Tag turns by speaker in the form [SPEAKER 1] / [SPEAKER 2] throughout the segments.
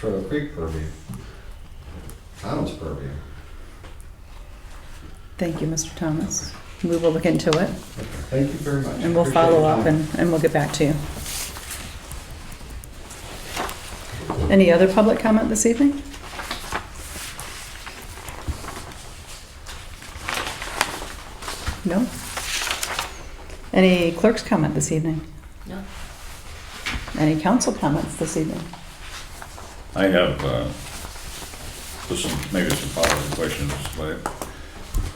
[SPEAKER 1] Turtle Creek purview. Town's purview.
[SPEAKER 2] Thank you, Mr. Thomas. We will look into it,
[SPEAKER 1] Thank you very much.
[SPEAKER 2] and we'll
[SPEAKER 1] Appreciate
[SPEAKER 2] follow
[SPEAKER 1] your
[SPEAKER 2] up,
[SPEAKER 1] time.
[SPEAKER 2] and, and we'll get back to you. Any other public comment this evening? No? Any clerk's comment this evening?
[SPEAKER 3] No.
[SPEAKER 2] Any council comments this evening?
[SPEAKER 4] I have, uh, just some, maybe some follow-up questions, but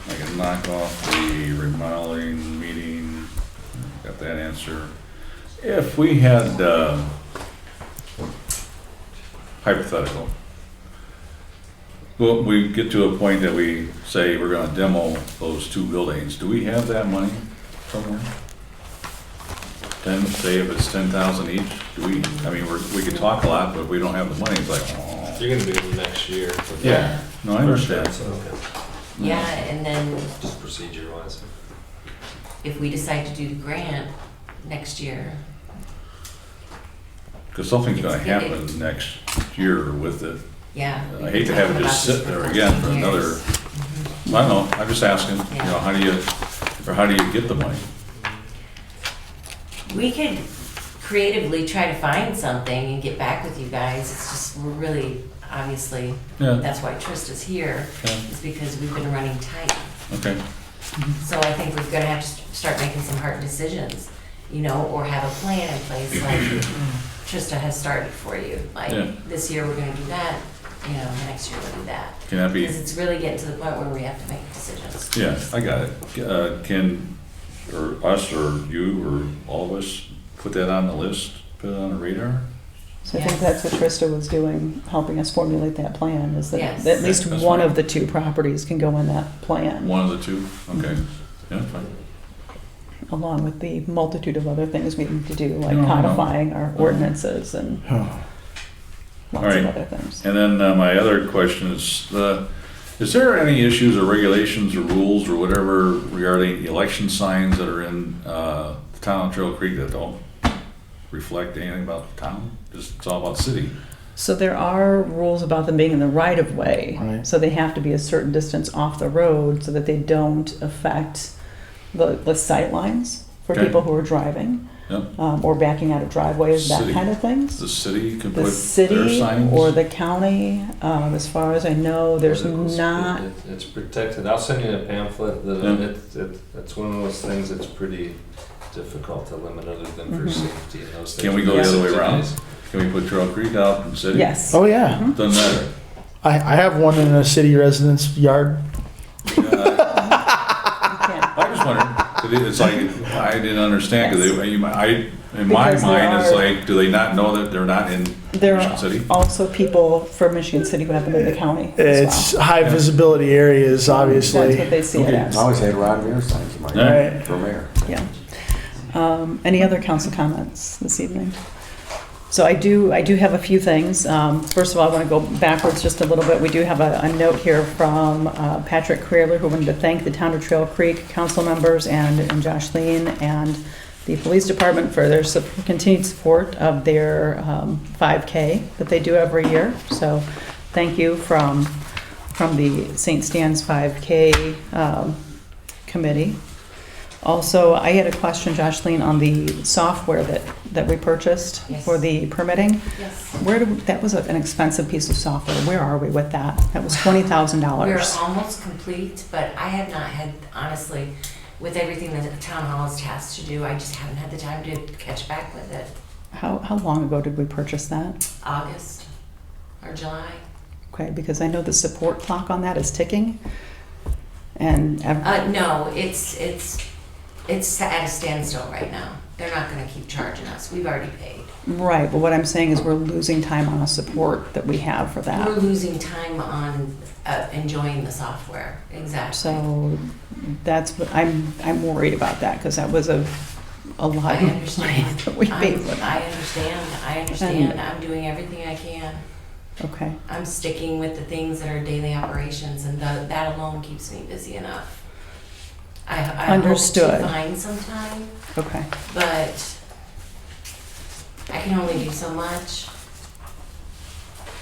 [SPEAKER 4] I can knock off the remodeling meeting, got that answer. If we had, uh, hypothetical, well, we get to a point that we say we're gonna demo those two buildings, do we have that money somewhere? Ten, say if it's ten thousand each, do we, I mean, we're, we could talk a lot, but if we don't have the money, it's like, oh.
[SPEAKER 5] You're gonna do it next year. but
[SPEAKER 4] Yeah, no, I understand.
[SPEAKER 3] Yeah, and then
[SPEAKER 5] Just procedure wise.
[SPEAKER 3] if we decide to do the grant next year,
[SPEAKER 4] Because something's gonna
[SPEAKER 3] It's gonna-
[SPEAKER 4] happen next year with it.
[SPEAKER 3] yeah.
[SPEAKER 4] I hate to have it just sit there again for another, I don't know, I'm just asking, you know, how do you, or how do you get the money?
[SPEAKER 3] We could creatively try to find something and get back with you guys. It's just, we're really, obviously,
[SPEAKER 4] Yeah,
[SPEAKER 3] that's why Trista's here,
[SPEAKER 4] yeah,
[SPEAKER 3] is because we've been running tight.
[SPEAKER 4] okay,
[SPEAKER 3] So I think we're gonna have to st- start making some hard decisions, you know, or have a plan in place like Trista has started for you.
[SPEAKER 4] Yeah.
[SPEAKER 3] Like, this year we're gonna do that, you know, next year we'll do that.
[SPEAKER 4] can that be,
[SPEAKER 3] Because it's really getting to the point where we have to make decisions.
[SPEAKER 4] yeah, I got it. Uh, Can, or us, or you, or all of us, put that on the list, put it on the radar?
[SPEAKER 2] So I think
[SPEAKER 3] Yes.
[SPEAKER 2] that's what Trista was doing, helping us formulate that plan, is that
[SPEAKER 3] Yes.
[SPEAKER 2] at least
[SPEAKER 4] That's
[SPEAKER 2] one
[SPEAKER 4] right.
[SPEAKER 2] of the two properties can go in that plan,
[SPEAKER 4] One of the two, okay, yeah, fine.
[SPEAKER 2] along with the multitude of other things we need to do, like
[SPEAKER 4] No, Mm-hmm. no, no.
[SPEAKER 2] codifying our ordinances and lots of
[SPEAKER 4] Alright.
[SPEAKER 2] other things.
[SPEAKER 4] And then uh, my other question is, the, is there any issues or regulations or rules or whatever regarding election signs that are in uh, the town of Trail Creek that don't reflect anything about the town? Just, it's all about city.
[SPEAKER 2] So there are rules about them being in the right of way,
[SPEAKER 6] Right.
[SPEAKER 2] so they have to be a certain distance off the road so that they don't affect the, the sight lines for
[SPEAKER 4] Okay.
[SPEAKER 2] people who are driving,
[SPEAKER 4] Yep.
[SPEAKER 2] um, or backing out of driveways, that
[SPEAKER 4] City.
[SPEAKER 2] kind of things.
[SPEAKER 4] The city can put
[SPEAKER 2] The
[SPEAKER 4] their
[SPEAKER 2] city
[SPEAKER 4] signs?
[SPEAKER 2] or the county, um, as far as I know, there's
[SPEAKER 5] Articles,
[SPEAKER 2] not,
[SPEAKER 5] it- It's protected. I'll send you a pamphlet that,
[SPEAKER 4] Yeah.
[SPEAKER 5] it's, it- it's one of those things that's pretty difficult to limit other than for
[SPEAKER 2] Mhm.
[SPEAKER 5] safety and those things.
[SPEAKER 4] Can we go the other way around?
[SPEAKER 5] Subsidies.
[SPEAKER 4] Can we put Trail Creek out in city?
[SPEAKER 2] yes.
[SPEAKER 6] Oh yeah,
[SPEAKER 4] Doesn't matter.
[SPEAKER 6] I, I have one in a city resident's yard.
[SPEAKER 4] Yeah,
[SPEAKER 2] you can't.
[SPEAKER 4] I I just wondered, 'cause it- it's like, I didn't understand, because they, you might- I, in my
[SPEAKER 2] Because there
[SPEAKER 4] mind, it's
[SPEAKER 2] are-
[SPEAKER 4] like, do they not know that they're not in
[SPEAKER 2] There
[SPEAKER 4] Michigan
[SPEAKER 2] are
[SPEAKER 4] City?
[SPEAKER 2] also people from Michigan City who happen to the county
[SPEAKER 6] It's
[SPEAKER 2] as well.
[SPEAKER 6] high visibility
[SPEAKER 2] That's
[SPEAKER 6] areas,
[SPEAKER 2] what
[SPEAKER 6] obviously.
[SPEAKER 2] they see it
[SPEAKER 4] Okay.
[SPEAKER 2] as,
[SPEAKER 1] I always had Ron Mayer signs in my
[SPEAKER 4] Yeah.
[SPEAKER 6] Right.
[SPEAKER 1] for mayor.
[SPEAKER 2] yeah. Um, any other council comments this evening? So I do, I do have a few things. Um, first of all, I want to go backwards just a little bit. We do have a, a note here from uh, Patrick Creeler, who wanted to thank the town of Trail Creek council members and, and Josh Lean and the police department for their sup- continued support of their um, 5K that they do every year. So thank you from, from the St. Stan's 5K um, committee. Also, I had a question, Josh Lean, on the software that, that we purchased
[SPEAKER 3] Yes.
[SPEAKER 2] for the permitting.
[SPEAKER 3] Yes.
[SPEAKER 2] Where, do- that was an expensive piece of software. Where are we with that? That was
[SPEAKER 3] We're
[SPEAKER 2] $20,000.
[SPEAKER 3] almost complete, but I have not had, honestly, with everything that the town hall is tasked to do, I just haven't had the time to catch back with it.
[SPEAKER 2] How, how long ago did we purchase that?
[SPEAKER 3] August or July.
[SPEAKER 2] Okay, because I know the support clock on that is ticking. And ev-
[SPEAKER 3] Uh, no, it's, it's, it's at a standstill right now. They're not gonna keep charging us. We've already paid.
[SPEAKER 2] Right, but what I'm saying is we're losing time on a support that we have for
[SPEAKER 3] We're
[SPEAKER 2] that.
[SPEAKER 3] losing time on uh, enjoying the software. Exactly.
[SPEAKER 2] So that's, what I'm, I'm worried about that because that was a, a
[SPEAKER 3] I
[SPEAKER 2] lot of money
[SPEAKER 3] understand.
[SPEAKER 2] that we
[SPEAKER 3] I'm-
[SPEAKER 2] paid for that.
[SPEAKER 3] I understand, I understand. I'm doing everything I can.
[SPEAKER 2] Okay,
[SPEAKER 3] I'm sticking with the things that are daily operations, and tha- that alone keeps me busy enough. I, I hope
[SPEAKER 2] Understood.
[SPEAKER 3] to find some time,
[SPEAKER 2] okay.
[SPEAKER 3] but I can only do so much.